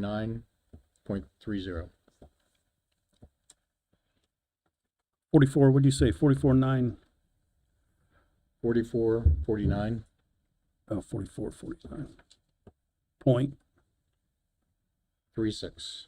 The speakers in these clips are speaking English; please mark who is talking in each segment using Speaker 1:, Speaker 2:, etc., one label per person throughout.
Speaker 1: 39.30.
Speaker 2: 44, what'd you say, 44, 9?
Speaker 1: 44, 49,
Speaker 2: Oh, 44, 49. Point,
Speaker 1: 36.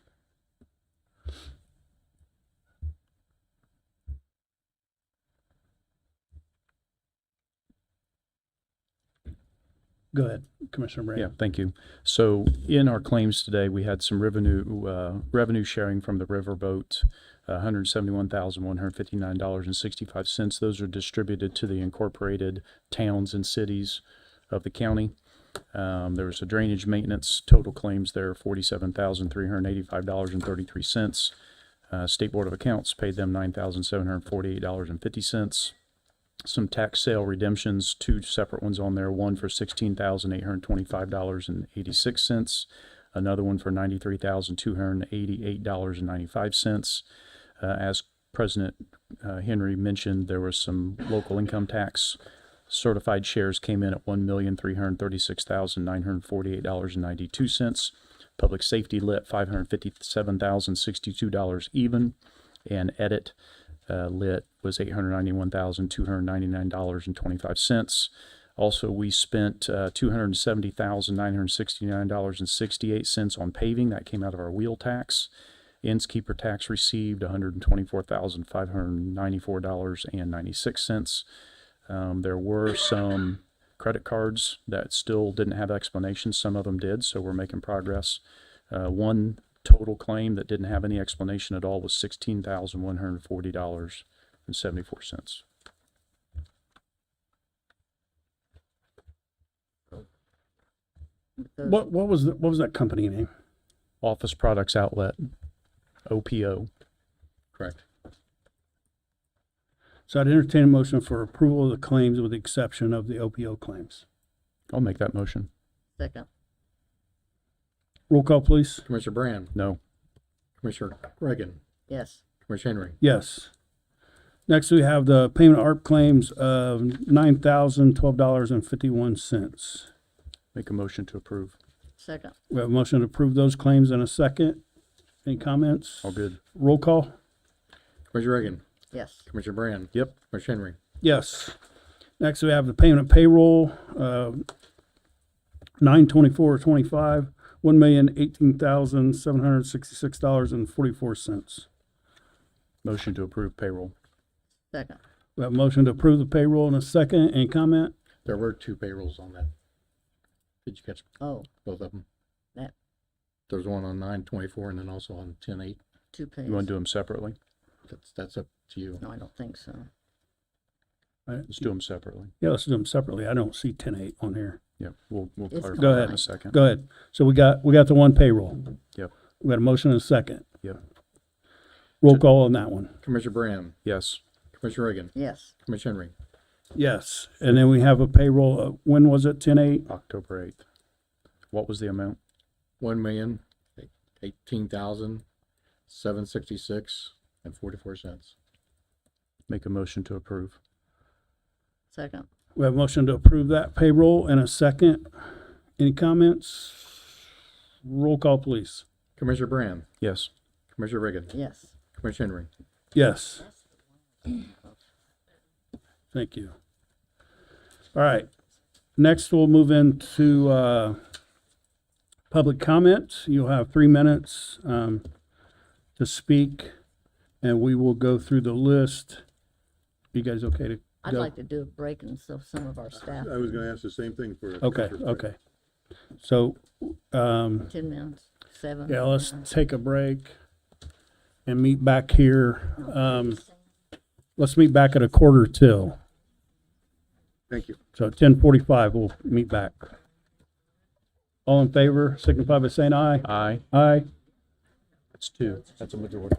Speaker 2: go ahead, Commissioner Brand.
Speaker 3: Yeah, thank you. So in our claims today, we had some revenue, uh, revenue sharing from the riverboat, hundred and seventy-one thousand, one hundred fifty-nine dollars and sixty-five cents. Those are distributed to the incorporated towns and cities of the county. Um, there was a drainage maintenance, total claims there, forty-seven thousand, three hundred and eighty-five dollars and thirty-three cents. Uh, State Board of Accounts paid them nine thousand, seven hundred and forty-eight dollars and fifty cents some tax sale redemptions, two separate ones on there, one for sixteen thousand eight hundred twenty-five dollars and eighty-six cents, another one for ninety-three thousand two hundred eighty-eight dollars and ninety-five cents. Uh, as President uh, Henry mentioned, there was some local income tax. Certified shares came in at one million three hundred thirty-six thousand nine hundred forty-eight dollars and ninety-two cents. Public safety lit five hundred fifty-seven thousand sixty-two dollars even, and edit uh, lit was eight hundred ninety-one thousand two hundred ninety-nine dollars and twenty-five cents. Also, we spent uh, two hundred seventy thousand nine hundred sixty-nine dollars and sixty-eight cents on paving. That came out of our wheel tax. Innskeeper tax received one hundred twenty-four thousand five hundred ninety-four dollars and ninety-six cents. Um, there were some credit cards that still didn't have explanations. Some of them did, so we're making progress. Uh, one total claim that didn't have any explanation at all was sixteen thousand one hundred forty dollars and seventy-four cents.
Speaker 2: What, what was, the- what was that company name?
Speaker 3: Office Products Outlet, OPO.
Speaker 1: Correct.
Speaker 2: So I'd entertain a motion for approval of the claims with the exception of the OPO claims.
Speaker 3: I'll make that motion.
Speaker 4: Second,
Speaker 2: Roll call, please.
Speaker 1: Commissioner Brand,
Speaker 3: No.
Speaker 1: Commissioner Reagan,
Speaker 4: yes,
Speaker 1: Commissioner Henry,
Speaker 2: Yes. Next, we have the payment of ARP claims of $9,012.51.
Speaker 3: Make a motion to approve.
Speaker 4: second,
Speaker 2: We have a motion to approve those claims in a second. Any comments?
Speaker 3: All good.
Speaker 2: Roll call?
Speaker 1: Commissioner Reagan,
Speaker 4: yes,
Speaker 1: Commissioner Brand,
Speaker 3: Yep.
Speaker 1: Commissioner Henry,
Speaker 2: Yes. Next, we have the payment of payroll, uh, nine twenty-four twenty-five, one million eighteen thousand seven hundred sixty-six dollars and forty-four cents.
Speaker 3: Motion to approve payroll.
Speaker 4: second,
Speaker 2: We have a motion to approve the payroll in a second. Any comment?
Speaker 1: there were two payrolls on that. Did you catch
Speaker 4: oh,
Speaker 1: both of them?
Speaker 4: that,
Speaker 1: There's one on nine twenty-four and then also on ten eight.
Speaker 4: two pages.
Speaker 3: You want to do them separately?
Speaker 1: That's, that's up to you.
Speaker 4: No, I don't think so.
Speaker 2: I-
Speaker 3: Let's do them separately.
Speaker 2: Yeah, let's do them separately. I don't see ten eight on here.
Speaker 3: Yeah, we'll, we'll
Speaker 4: It's
Speaker 3: clarify
Speaker 2: Go
Speaker 3: that
Speaker 2: ahead.
Speaker 3: in a second.
Speaker 2: Go ahead. So we got, we got the one payroll.
Speaker 3: Yep,
Speaker 2: We got a motion and a second.
Speaker 3: yep.
Speaker 2: Roll call on that one.
Speaker 1: Commissioner Brand,
Speaker 3: Yes.
Speaker 1: Commissioner Reagan,
Speaker 4: Yes,
Speaker 1: Commissioner Henry,
Speaker 2: Yes. And then we have a payroll, of- when was it? Ten eight?
Speaker 3: October 8th. What was the amount?
Speaker 1: one million eighteen thousand seven sixty-six and forty-four cents.
Speaker 3: Make a motion to approve.
Speaker 4: second,
Speaker 2: We have a motion to approve that payroll and a second. Any comments? Roll call, please.
Speaker 1: Commissioner Brand,
Speaker 3: Yes.
Speaker 1: Commissioner Reagan,
Speaker 4: yes,
Speaker 1: Commissioner Henry,
Speaker 2: Yes. Thank you. All right. Next, we'll move into uh, public comments. You'll have three minutes um, to speak, and we will go through the list. You guys okay to go?
Speaker 4: I'd like to do a break and so some of our staff,
Speaker 5: I was gonna ask the same thing for.
Speaker 2: Okay, okay. So, um,
Speaker 4: ten minutes, seven.
Speaker 2: Yeah, let's take a break and meet back here. Um, let's meet back at a quarter till.
Speaker 5: Thank you.
Speaker 2: So ten forty-five, we'll meet back. All in favor, signify by saying aye.
Speaker 3: Aye.
Speaker 2: Aye.
Speaker 3: That's two. That's a majority.